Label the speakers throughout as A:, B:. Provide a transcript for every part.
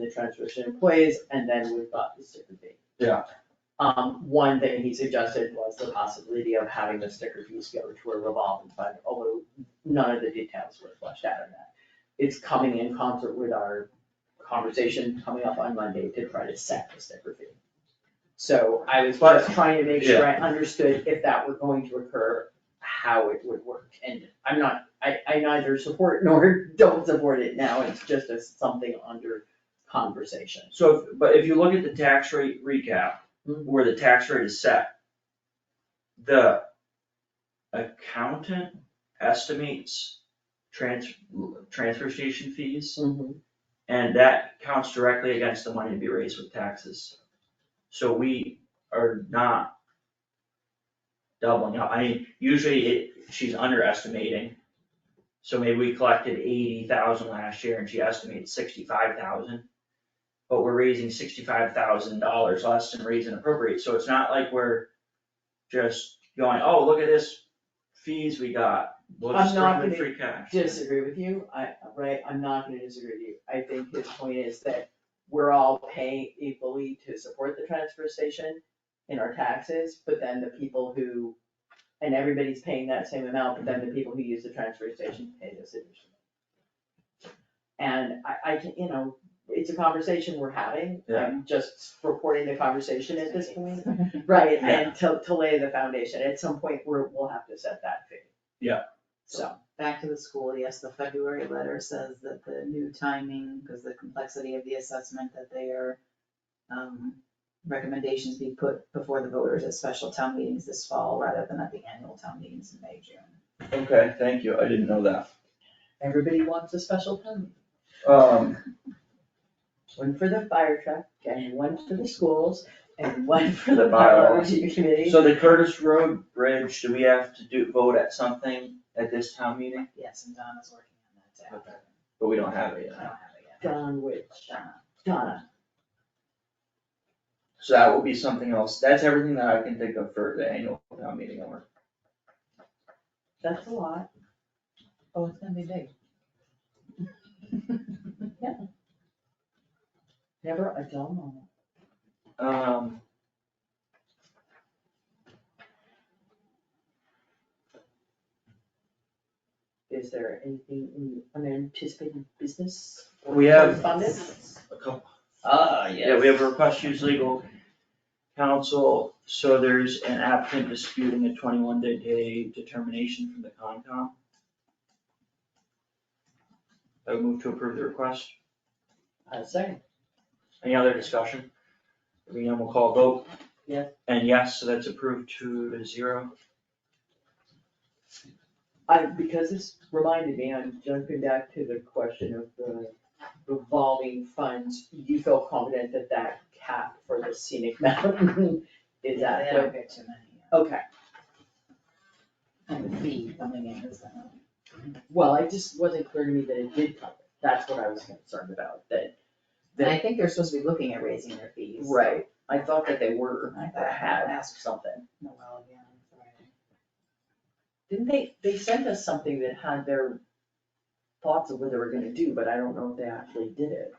A: the transfer station employees, and then we've got the sticker fee.
B: Yeah.
A: Um, one thing he suggested was the possibility of having the sticker fees go to a revolving fund, although none of the details were fleshed out on that. It's coming in concert with our conversation coming up on Monday to try to set the sticker fee. So I was just trying to make sure I understood if that were going to occur, how it would work. And I'm not, I, I neither support nor don't support it now, it's just as something under conversation.
C: So, if- but if you look at the tax rate recap,
A: Mhm.
C: where the tax rate is set, the accountant estimates trans, transfer station fees, and that counts directly against the money to be raised with taxes. So we are not doubling up, I mean, usually it, she's underestimating. So maybe we collected eighty thousand last year and she estimated sixty-five thousand. But we're raising sixty-five thousand dollars less than raise and appropriate, so it's not like we're just going, oh, look at this fees we got, we'll just
A: I'm
C: throw
A: not
C: them in
A: gonna
C: free cash.
A: Disagree with you, I, right, I'm not gonna disagree with you, I think his point is that we're all paying equally to support the transfer station in our taxes, but then the people who, and everybody's paying that same amount, but then the people who use the transfer station pay this additional. And I, I can, you know, it's a conversation we're having, I'm just reporting the conversation at this point. Right, and to, to lay the foundation, at some point, we're, we'll have to set that fee.
C: Yeah.
A: So,
D: back to the school, yes, the February letter says that the new timing, because the complexity of the assessment, that their um, recommendations be put before the voters at special town meetings this fall rather than at the annual town meetings in May, June.
C: Okay, thank you, I didn't know that.
A: everybody wants a special town,
C: Um,
A: one for the fire truck, and one for the schools, and one for the
C: The
A: bylaw
C: bylaw.
A: review committee.
C: So the Curtis Road Bridge, do we have to do, vote at something at this town meeting?
D: Yes, and Donna's working on that to have it.
C: But we don't have it yet.
D: I don't have it yet.
A: Don Witch,
D: Donna.
A: Donna,
C: So that will be something else. That's everything that I can think of for the annual town meeting or.
A: that's a lot,
D: Oh, it's gonna be big.
A: never a dull moment.
C: Um.
A: Is there anything in unanticipated business? or
C: We have-
A: Correspondence?
C: A couple.
A: Ah, yes.
C: Yeah, we have a request to use legal counsel. So there's an applicant disputing a twenty-one day determination from the Concom. I would move to approve the request.
A: Uh, second,
C: Any other discussion? Hearing none, we'll call a vote.
A: Yes.
C: And yes, so that's approved two to zero.
A: I, because this reminded me, I'm jumping back to the question of the revolving funds. You feel confident that that cap for the scenic mountain is
D: They don't
A: adequate?
D: get too many.
A: Okay,
D: And the fee coming in is gonna.
A: well, it just wasn't clear to me that it did cover, it. that's what I was concerned about, that,
D: And I think they're supposed to be looking at raising their fees. so
A: right, I thought that they were,
D: I thought I had
A: had
D: asked
A: something.
D: Noel again on Friday.
A: Didn't they, they sent us something that had their thoughts of what they were gonna do, but I don't know if they actually did it.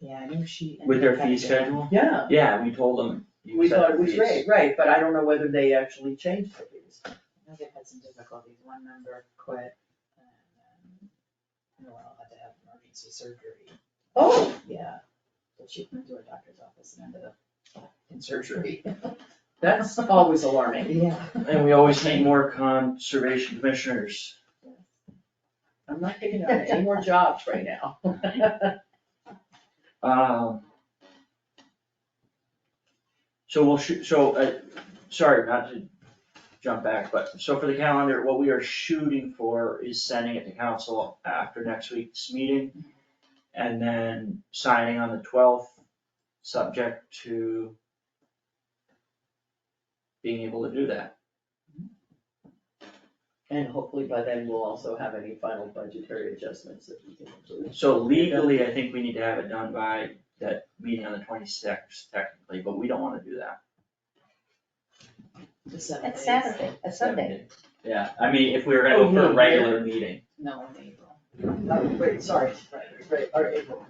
D: Yeah, I knew she.
C: With their fee
D: fees
C: schedule?
A: Yeah,
C: Yeah, we told them. you
A: we
C: set
A: thought it
C: the
A: was
C: fees.
A: great, right, but I don't know whether they actually changed the fees.
D: I know they've had some difficulties, one member quit, and um, then Noel had to have emergency surgery,
A: Oh,
D: yeah. But she went to a doctor's office and ended up in surgery.
A: That's always alarming.
D: Yeah.
C: And we always need more conservation commissioners.
A: I'm not picking up any more jobs right now.
C: Um. So we'll shoot, so, uh, sorry, not to jump back, but so for the calendar, what we are shooting for is sending it to council after next week's meeting. And then signing on the twelfth, subject to being able to do that.
A: And hopefully by then we'll also have any final budgetary adjustments that we can include.
C: So legally, I think we need to have it done by that meeting on the twenty-sixth technically, but we don't wanna do that.
D: It's seven days.
E: It's Saturday, a Sunday.
C: Yeah, I mean, if we were gonna
A: Oh,
C: go for
A: yeah.
C: a regular meeting.
D: No, in April.
A: Oh, wait, sorry, right, right, or April.